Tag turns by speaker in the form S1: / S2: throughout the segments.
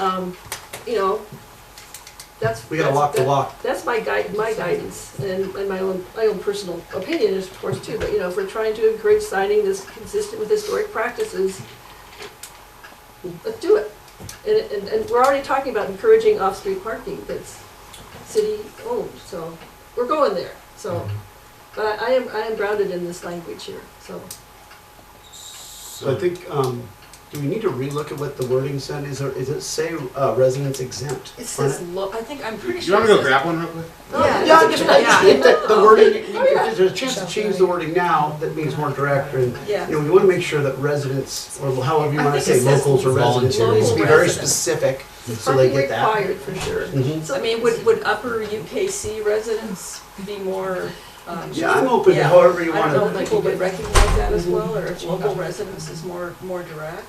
S1: um, you know, that's.
S2: We gotta walk the
S1: that's-
S2: walk.
S1: That's my guide, my guidance and, and my own, my own personal opinion is of course too, but you know, if we're trying to encourage signing that's consistent with historic practices, let's do it. And, it- and, and we're already talking about encouraging off-street parking that's city owned, so we're going there, so. But I am, I am grounded in this language here, so.
S2: So I think, um, do we need to relook at what the wording said? Is there, is it say uh, residents exempt?
S3: It
S2: on
S3: says lo, I think, I'm pretty
S4: Do you
S3: sure
S4: want
S3: it
S4: me to go
S3: says-
S4: grab one real quick?
S3: Yeah.
S2: Yeah, I just, I just think that the wording,
S3: Oh,
S1: yeah.
S2: if there's a chance to change the wording now, that means more direct, and,
S1: Yeah.
S2: you know, we wanna make sure that residents, or however you
S3: I
S2: wanna
S3: think it
S2: say
S3: says
S2: locals or residents, it needs to be
S3: local
S2: very
S3: residents.
S2: specific,
S1: It's
S2: so they
S1: parking
S2: get that.
S1: required for sure.
S2: Mhm.
S1: So
S3: I mean, would, would upper UKC residents be more, um?
S2: Yeah, I'm open to
S3: Yeah.
S2: however you
S3: I don't know if
S2: wanna,
S3: people would recognize that as well, or if Mm-hmm. local residents is more, more direct.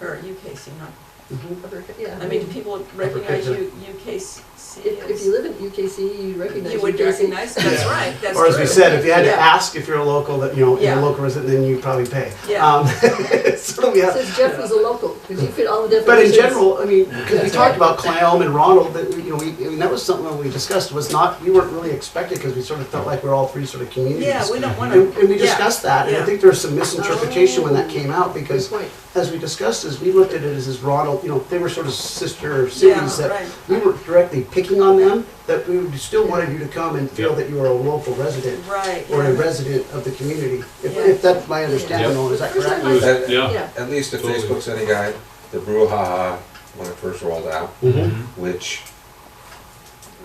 S3: Or UKC, not,
S2: Mhm.
S1: Yeah,
S3: I mean, do people recognize you, UKC
S1: If, if you
S3: is?
S1: live in UKC, you recognize
S3: You would
S1: UKC.
S3: recognize, that's
S2: Yeah.
S3: right, that's true.
S2: or as we said, if you had to
S3: Yeah.
S2: ask if you're a local, that, you know, you're a
S3: Yeah.
S2: local resident, then you probably pay.
S3: Yeah.
S2: Um, So we have,
S1: Since Jeff was a local, because you fit all the definitions.
S2: But in general, I mean, because we
S3: That's
S2: talked
S3: right.
S2: about Clam and Ronald, that, you know, we, I mean, that was something that we discussed, was not, we weren't really expected, because we sort of felt like we're all three sort of communities.
S3: Yeah, we don't wanna.
S2: And, and we
S3: yeah.
S2: discussed that, and I
S3: yeah.
S2: think there was some misinterpretation when that came out,
S1: Good
S2: because
S1: point.
S2: as we discussed this, we looked at it as, as Ronald, you know, they were sort of sister
S3: Yeah,
S2: cities that
S3: right.
S2: we weren't directly picking on them, that we would- still wanted you to come and feel
S4: Yeah.
S2: that you were a local resident
S3: Right.
S2: or a
S3: yeah.
S2: resident of the community. If,
S3: Yeah.
S2: if that's my understanding,
S5: Yeah.
S2: Noel, is that
S1: First
S2: correct?
S1: time I-
S5: That-
S4: Yeah.
S1: Yeah,
S5: At least if
S4: Totally.
S5: Facebook's any guide, the brouhaha when it first rolled out,
S2: Mm-hmm.
S5: which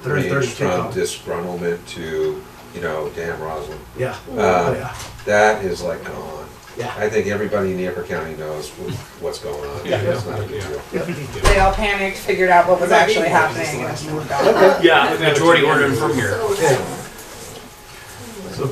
S2: Third, third
S5: ranged from
S2: kickoff.
S5: disgruntlement to, you know, damn Roslyn,
S2: Yeah, Oh,
S5: uh,
S2: yeah,
S5: that is like gone.
S2: yeah.
S5: I think everybody in Nipper County knows wh- what's going on.
S4: Yeah.
S5: It's not a big deal.
S6: They all panicked, figured out what was actually happening, and moved on.
S4: Yeah, the majority ordered from here.
S1: so. um,
S2: Okay. So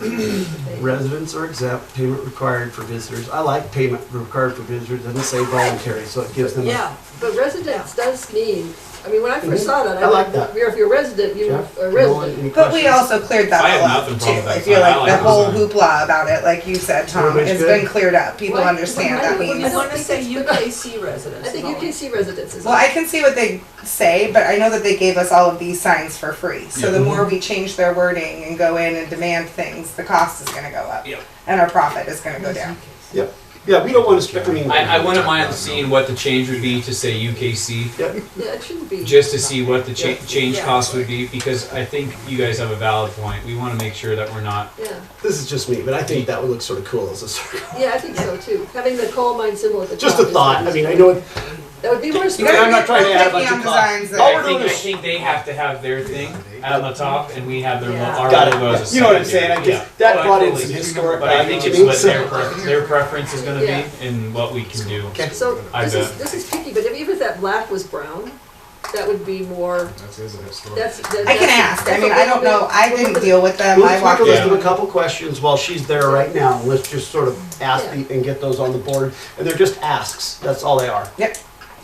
S1: so-
S2: Residents are exempt, payment required for visitors. I like payment required for visitors, doesn't say voluntary, so it gives them a.
S3: Yeah,
S1: But residence does mean, I mean, when I first
S2: Mhm.
S1: saw that,
S2: I
S1: I
S2: like
S1: went,
S2: that.
S1: you're- if you're a resident, you're
S2: Jeff,
S1: a
S2: Nolan,
S1: resident.
S2: any
S6: But we
S2: questions?
S6: also cleared that
S4: I have
S6: all up
S4: nothing
S6: too.
S4: wrong with
S6: I
S4: that
S6: feel
S4: sign. I
S6: like the
S4: like the
S6: whole
S4: sign.
S6: hoopla about it, like you said, Tom,
S2: Everybody's
S6: has
S2: good?
S6: been cleared up. People
S1: Why-
S6: understand
S1: why
S6: that
S1: would we
S3: I
S6: means.
S1: not-
S3: wanna say UKC residents.
S1: I think
S3: is all.
S1: UKC residence is.
S6: Well, I can see what they say, but I know that they gave us all of these signs for free. So the
S4: Yeah.
S6: more we change their wording and go in and demand things, the cost is gonna go up.
S4: Yeah.
S6: And our profit is gonna go down.
S2: Yep. Yeah, we don't want to spend, I mean.
S7: I, I wouldn't mind seeing what the change would be to say UKC,
S2: Yep,
S1: Yeah, it shouldn't be.
S7: just to see what the cha- change
S3: Yeah.
S7: cost would be, because I think you guys have a valid point. We want to make sure that we're not.
S1: Yeah,
S2: this is just me, but I think that would look sort of cool as a circle.
S1: yeah, I think so too. Having the coal mine symbol at the top.
S2: Just a
S1: is-
S2: thought, I mean, I know, it-
S1: That would be more.
S2: You know, I'm not
S6: Don't
S2: trying to
S6: get
S2: add a
S6: picky
S2: bunch of
S6: on
S2: cost.
S6: designs that-
S3: Oh,
S2: All we're
S7: I think,
S2: doing
S7: I
S2: is-
S7: think they have to have their thing on the top, and we have their lo-
S3: Yeah.
S7: our
S2: Got it.
S7: logo as a
S2: You know what I'm saying?
S7: secondary.
S2: I just-
S7: Yeah.
S2: that
S7: Oh, I
S2: brought in
S7: totally
S2: some
S7: do.
S2: historic
S7: But I think
S2: value
S7: it's
S2: to
S7: what
S2: me,
S7: their,
S2: so-
S7: pre- their preference is going to
S1: Yeah.
S7: be and what we can do.
S2: okay,
S1: So
S7: I
S1: this is,
S7: bet.
S1: this is picky, but if- even if that black was brown, that would be more,
S4: That's his historic.
S1: that's. that-
S6: I can
S1: that's-
S6: ask. I
S1: that's
S6: mean,
S1: a
S6: I don't
S1: little
S6: know. I didn't deal with them. I
S2: let's make
S6: walked
S2: a list
S6: in.
S2: of a couple questions while she's there right now. Let's just sort of ask the- and get those on the board. And they're just asks, that's all they are.
S6: Yep.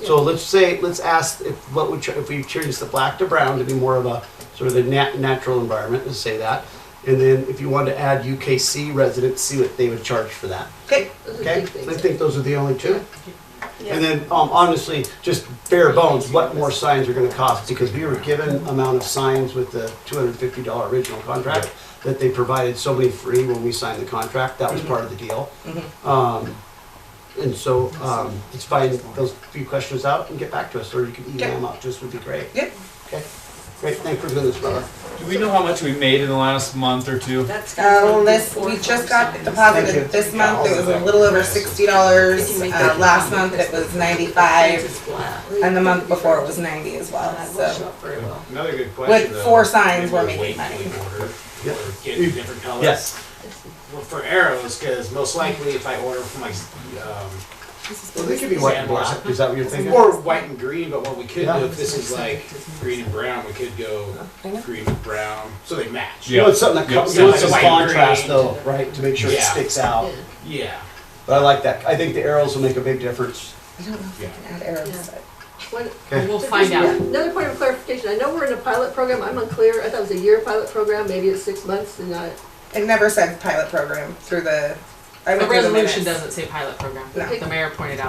S2: So let's say, let's ask if, what would, ch- if we change the black to brown to be more of a, sort of the nat- natural environment, let's say that. And then if you wanted to add UKC residents, see what they would charge for that,
S6: Okay.
S1: bit- those are
S2: okay?
S1: big things.
S2: I think those are the only two.
S3: Yeah.
S2: And then, um, honestly, just bare bones, what more signs are gonna cost? Because we were given amount of signs with the two hundred and fifty dollar original contract that they provided so many free when we signed the contract, that was part of the deal. Um, and so, um, let's find those few questions out and get back to us, or you can email them out, just would be great.
S6: Yep.
S2: Okay, great, thanks for doing this, brother.
S7: Do we know how much we made in the last month or two?
S3: That's gotta
S6: Uh,
S3: be
S6: list,
S3: four
S6: we just
S3: signs.
S6: got the
S2: Thank you.
S6: deposit this month, it was a little over sixty dollars, uh, last month it was ninety-five,
S3: It's black.
S6: and the month before it was ninety as well,
S3: That will show
S6: Uh, so.
S3: up very well.
S4: Another good question.
S6: With four signs,
S4: Maybe
S6: we're
S4: a
S6: making
S4: weight
S6: money.
S4: order
S2: Yeah.
S4: Or get different colors. Well, For arrows, because most likely if I order for my, um,
S2: Well, they could be white and black, is that what you're thinking?
S4: or white and green, but what we could
S2: Yeah.
S4: do, if this is like green and brown, we could go green and brown, so they match.
S2: You know, it's something that
S7: Yeah.
S2: comes, you know, it's
S4: Yeah.
S2: a
S4: White and
S2: contrast
S4: green.
S2: though, right, to make sure it
S4: Yeah.
S2: sticks out.
S1: Yeah.
S4: Yeah,
S2: But I like that, I think the arrows will make a big difference.
S4: yeah.
S6: Add arrows, but-
S1: One-
S8: We'll find out.
S1: Another point of clarification, I know we're in a pilot program, I'm unclear, I thought it was a year pilot program, maybe it's six months and not.
S6: It never said pilot program through the, I
S8: The
S6: went through the minutes.
S8: resolution doesn't say pilot program.
S6: No.
S8: The mayor pointed out.